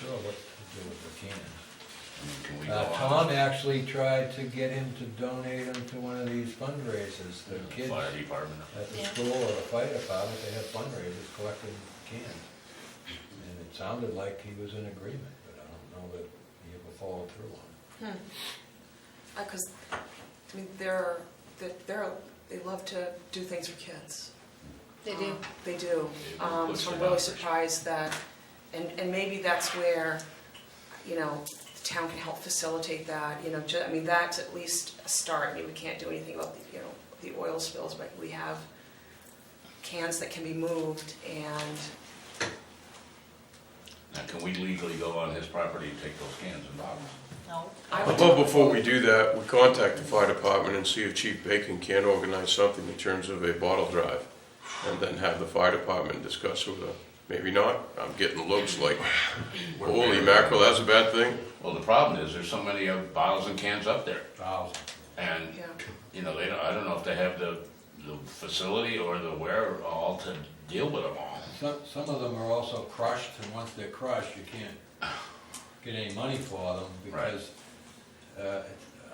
sure what to do with the cans. I mean, can we go Uh, on? Tom actually tried to get him to donate them to one of these fundraisers, the the kids Fire department. at the Yeah. school or the fire department, they have fundraisers collecting cans. And it sounded like he was in agreement, but I don't know that he ever followed through on it. Because, Hmm. Uh, I mean, they're, they're- they're, they love to do things for kids. Um, They do. They do. They Um, push So I'm it really out. surprised that, and, and maybe that's where, you know, the town can help facilitate that, you know, ju- I mean, that's at least a start. I mean, we can't do anything about, the you know, the oil spills, but we have cans that can be moved and, Now, can we legally go on his property and take those cans and bottles? No. I How would. about before we do that, we contact the fire department and see if Chief Bacon can organize something in terms of a bottle drive? And then have the fire department discuss with her. Maybe not, I'm getting looks like, We're- holy mackerel, that's a bad thing. Well, the problem is, there's so many uh, bottles and cans up there, Thousands. and, Yeah. you know, they don't, I don't know if they have the, the facility or the wherewithal to deal with them all. Some, some of them are also crushed, and once they're crushed, you can't get any money for them, because, uh,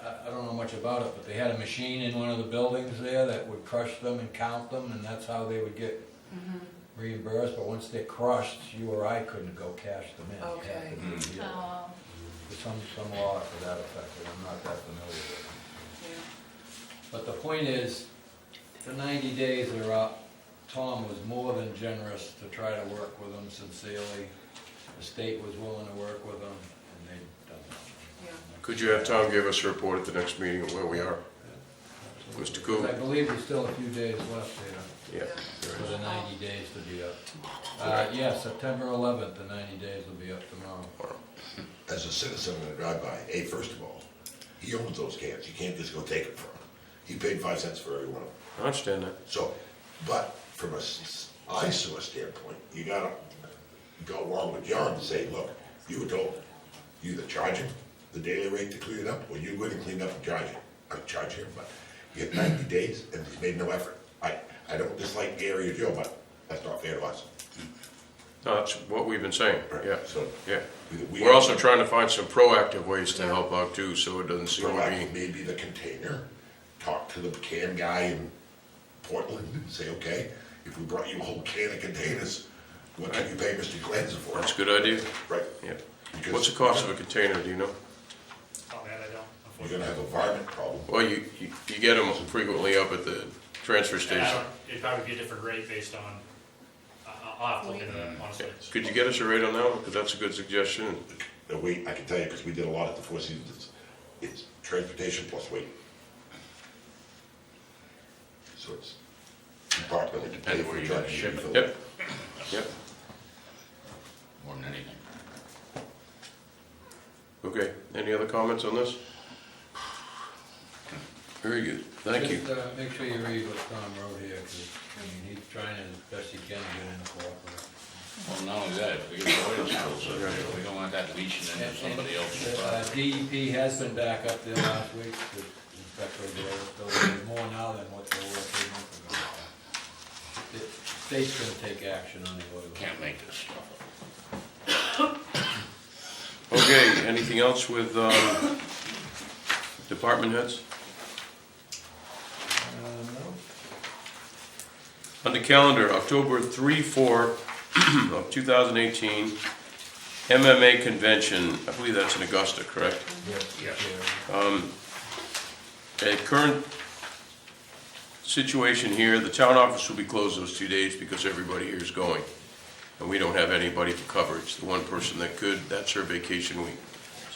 I, I don't know much about it, but they had a machine in one of the buildings there that would crush them and count them, and that's how they would get reimbursed, but once they're crushed, you or I couldn't go cash them in. You had to Okay. do it. Oh, There's Some, some law to that effect, but I'm not that familiar with it. Yeah. But the point is, the ninety days are up. Tom was more than generous to try to work with them sincerely. The state was willing to work with them, and they've done Yeah. that. Could you have Tom give us a report at the next meeting of where we are? Mr. Cool? I believe there's still a few days left there Yeah. for the ninety days to be up. Uh, yeah, September eleventh, the ninety days will be up tomorrow. as a citizen when I drive by, A, first of all, he owns those cans, you can't just go take them from him. He paid five cents for every one of them. I understand that. So, but from a s- ISO standpoint, you gotta go along with John and say, look, you were told, you either charge him the daily rate to clean it up, or you're gonna clean up and charge him, i charge him, but you have ninety days and he's made no effort. I, I don't dislike Gary or Joe, but that's not fair to us. No, That's what we've been saying, yeah, So, yeah. we- We're also trying to find some proactive ways to help out too, so it doesn't seem to be. proactive, maybe the container, talk to the can guy in Portland, and say, okay, if we brought you a whole can of containers, what can you pay Mr. Glanza for? That's a good idea, Right, yeah. Because- What's the cost of a container, do you know? Oh, man, I don't, you're unfortunately. gonna have a varmint problem. Well, you, you you get them frequently up at the transfer And I station. don't, it'd probably be a different rate based on, I- I- I'll have to look into that, honestly. Could you get us a rate on that one? Because that's a good suggestion. The weight, I can tell you, because we did a lot at the Four Seasons, it's transportation plus weight. So it's department, It you depends pay where for you gotta judge, you ship it. refill. Yep, yep, More than anything. okay. Any other comments on this? Very good, thank you. Just, uh, make sure you read what Tom wrote here, 'cause, I mean, he's trying as best he can to get in the cooperative. Well, not only that, if we get the oil spills up there, we don't want that leaching into somebody else's Uh, property. DEP has been back up there last week, to inspect over there, so there's more now than what there were three months ago. The State's gonna take action on the oil. Can't make this stuff up. Okay, anything else with um, department heads? Uh, no? On the calendar, October 3, 4 of 2018, MMA Convention, I believe that's in Augusta, correct? Yes. At current situation here, the town office will be closed those two days because everybody here is going. And we don't have anybody for coverage. The one person that could, that's her vacation week.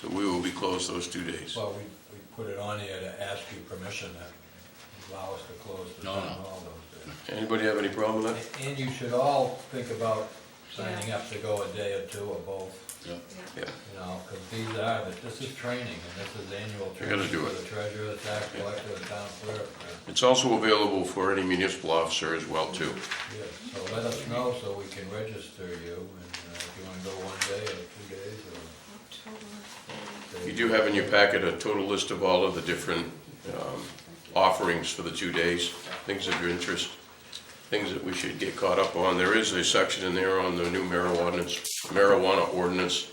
So we will be closed those two days. Well, we, we put it on here to ask you permission to allow us to close the No, town no. hall those days. Anybody have any problem with that? And- And you should all think about signing up to go a day or two or both, Yeah, you know, because these are, the- this is training, and this is annual You training gotta do for it. the treasurer, the tax collector, the town clerk. uh, It's also available for any municipal officer as well, too. Yeah, so let us know so we can register you, and uh, if you wanna go one day or two days or. You do have in your packet a total list of all of the different um, offerings for the two days, things of your interest, things that we should get caught up on. There is a section in there on the new marijuana, marijuana ordinance,